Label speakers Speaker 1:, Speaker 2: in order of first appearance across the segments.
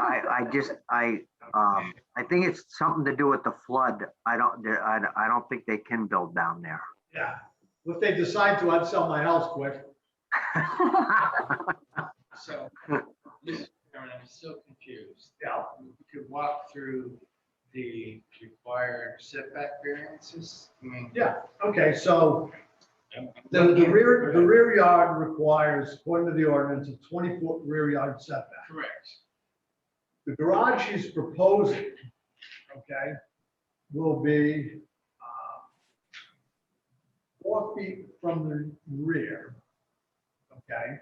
Speaker 1: I just, I, um, I think it's something to do with the flood. I don't, there- I, I don't think they can build down there.
Speaker 2: Yeah, if they decide to, I'd sell my house quick.
Speaker 3: So, Mr. Chairman, I'm still confused.
Speaker 2: Yeah,
Speaker 3: We could walk through the required setback variances. I mean,
Speaker 2: okay, so
Speaker 3: I'm-
Speaker 2: the, the rear, the rear yard requires, according to the ordinance, a twenty-foot rear yard setback.
Speaker 3: Correct.
Speaker 2: The garage he's proposing, okay, will be, uh, four feet from the rear, okay?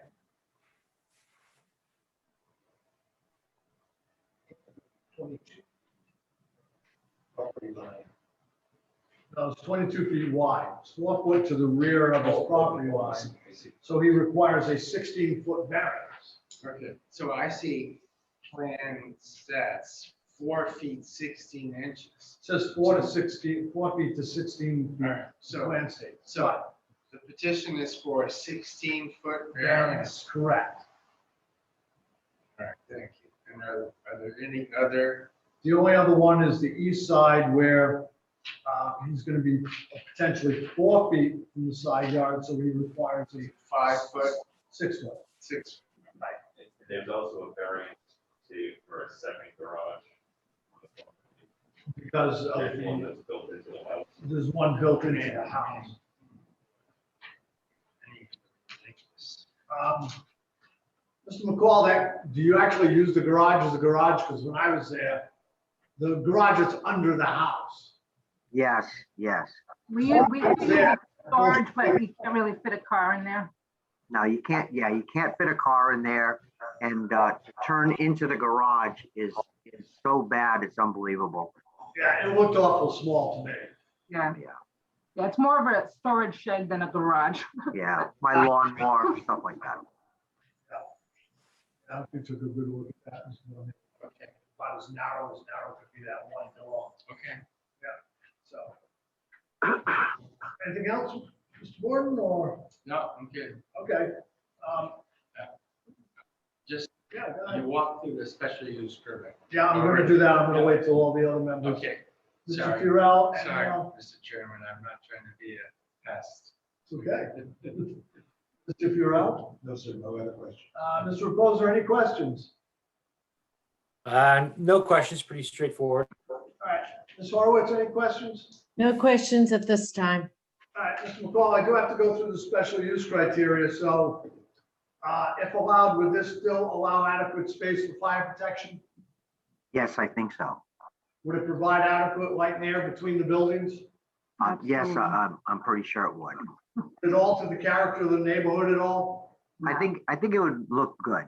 Speaker 2: Twenty-two. Property line. No, it's twenty-two feet wide, it's four foot to the rear of his property line,
Speaker 3: I see.
Speaker 2: so he requires a sixteen-foot variance.
Speaker 3: Okay, so I see plan sets, four feet, sixteen inches.
Speaker 2: It Says four to sixteen, four feet to sixteen feet.
Speaker 3: Alright, so
Speaker 2: Wednesday. So
Speaker 3: the petition is for a sixteen foot variance.
Speaker 2: variance, correct.
Speaker 3: Alright, thank you. And are, are there any other,
Speaker 2: The only other one is the east side where uh, he's going to be potentially four feet from the side yard, so he requires a
Speaker 3: five foot,
Speaker 2: six foot.
Speaker 3: six,
Speaker 4: There's also a variance to, for a second garage. on the property.
Speaker 2: Because of
Speaker 4: There's one
Speaker 2: the,
Speaker 4: that's built into the house.
Speaker 2: there's one built into the house.
Speaker 3: any- ridiculous.
Speaker 2: Um, Mr. McCall, that, do you actually use the garage as a garage? Because when I was there, the garage is under the house.
Speaker 1: Yes, yes.
Speaker 5: We, we
Speaker 2: It's there.
Speaker 5: have storage, but we can't really fit a car in there.
Speaker 1: No, you can't, yeah, you can't fit a car in there and, uh, to turn into the garage is, is so bad, it's unbelievable.
Speaker 2: Yeah, it looked awful small to me.
Speaker 5: Yeah.
Speaker 1: Yeah.
Speaker 5: Yeah, it's more of a storage shed than a garage.
Speaker 1: Yeah, my lawnmower, stuff like that.
Speaker 2: I don't think took a good look at that. It was really
Speaker 3: Okay,
Speaker 2: About as narrow as narrow could be that one door.
Speaker 3: okay.
Speaker 2: So. Anything else, Mr. Gordon, or,
Speaker 3: No, I'm good.
Speaker 2: okay, um,
Speaker 3: Just,
Speaker 2: yeah, go
Speaker 3: you
Speaker 2: ahead.
Speaker 3: walk through the special use permit.
Speaker 2: yeah, I'm gonna do that, I'm gonna wait till all the other members.
Speaker 3: Okay,
Speaker 2: Mr.
Speaker 3: sorry.
Speaker 2: Furell, and,
Speaker 3: sorry,
Speaker 2: uh,
Speaker 3: Mr. Chairman, I'm not trying to be a pest.
Speaker 2: it's okay. Mr. Furell,
Speaker 6: No, sir, no other question.
Speaker 2: uh, Mr. Reposa, any questions?
Speaker 7: Uh, no questions, pretty straightforward.
Speaker 2: All right, Ms. Horowitz, any questions?
Speaker 8: No questions at this time.
Speaker 2: All right, Mr. McCall, I do have to go through the special use criteria, so, uh, if allowed, would this still allow adequate space for fire protection?
Speaker 1: Yes, I think so.
Speaker 2: Would it provide adequate light and air between the buildings?
Speaker 1: Uh, yes, I-
Speaker 5: Absolutely.
Speaker 1: I'm, I'm pretty sure it would.
Speaker 2: Did it alter the character of the neighborhood at all?
Speaker 1: I think, I think it would look good.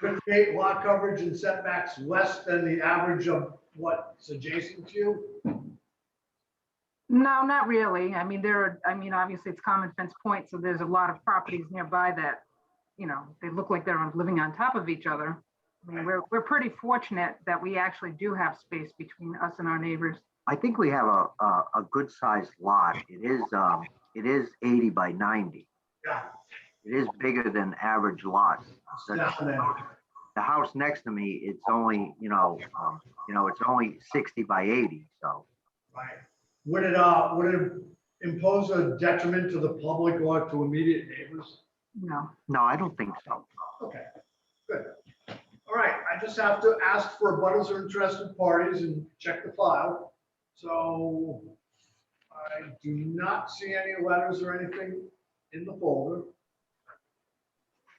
Speaker 2: Could create lot coverage and setbacks less than the average of what's adjacent to you?
Speaker 5: No, not really. I mean, there are, I mean, obviously it's common fence point, so there's a lot of properties nearby that, you know, they look like they're living on top of each other. I mean, we're, we're pretty fortunate that we actually do have space between us and our neighbors.
Speaker 1: I think we have a, a, a good sized lot. It is, um, it is eighty by ninety.
Speaker 2: Yeah.
Speaker 1: It is bigger than average lots. The-
Speaker 2: Definitely.
Speaker 1: The house next to me, it's only, you know, um, you know, it's only sixty by eighty, so.
Speaker 2: Right. Would it, uh, would it impose a detriment to the public or to immediate neighbors?
Speaker 5: No,
Speaker 1: No, I don't think so.
Speaker 2: Okay, good. All right, I just have to ask for abutters or interested parties and check the file. So I do not see any letters or anything in the folder.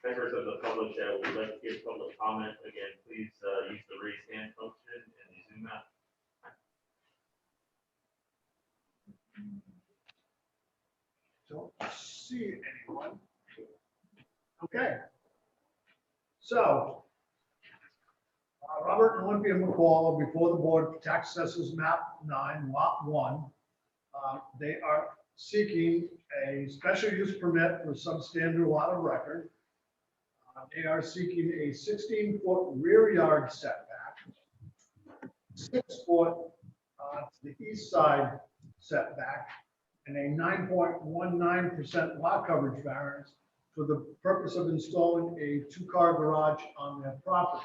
Speaker 4: Members of the public that would like to give public comment, again, please, uh, use the raise hand function in the Zoom app.
Speaker 2: Don't see anyone. Okay. So, uh, Robert and Olympia McCall are before the board, tax assessors map nine, lot one. Uh, They are seeking a special use permit for substandard lot of record. Uh, They are seeking a sixteen foot rear yard setback. Six foot uh, to the east side setback and a nine point one nine percent lot coverage variance for the purpose of installing a two-car garage on their property.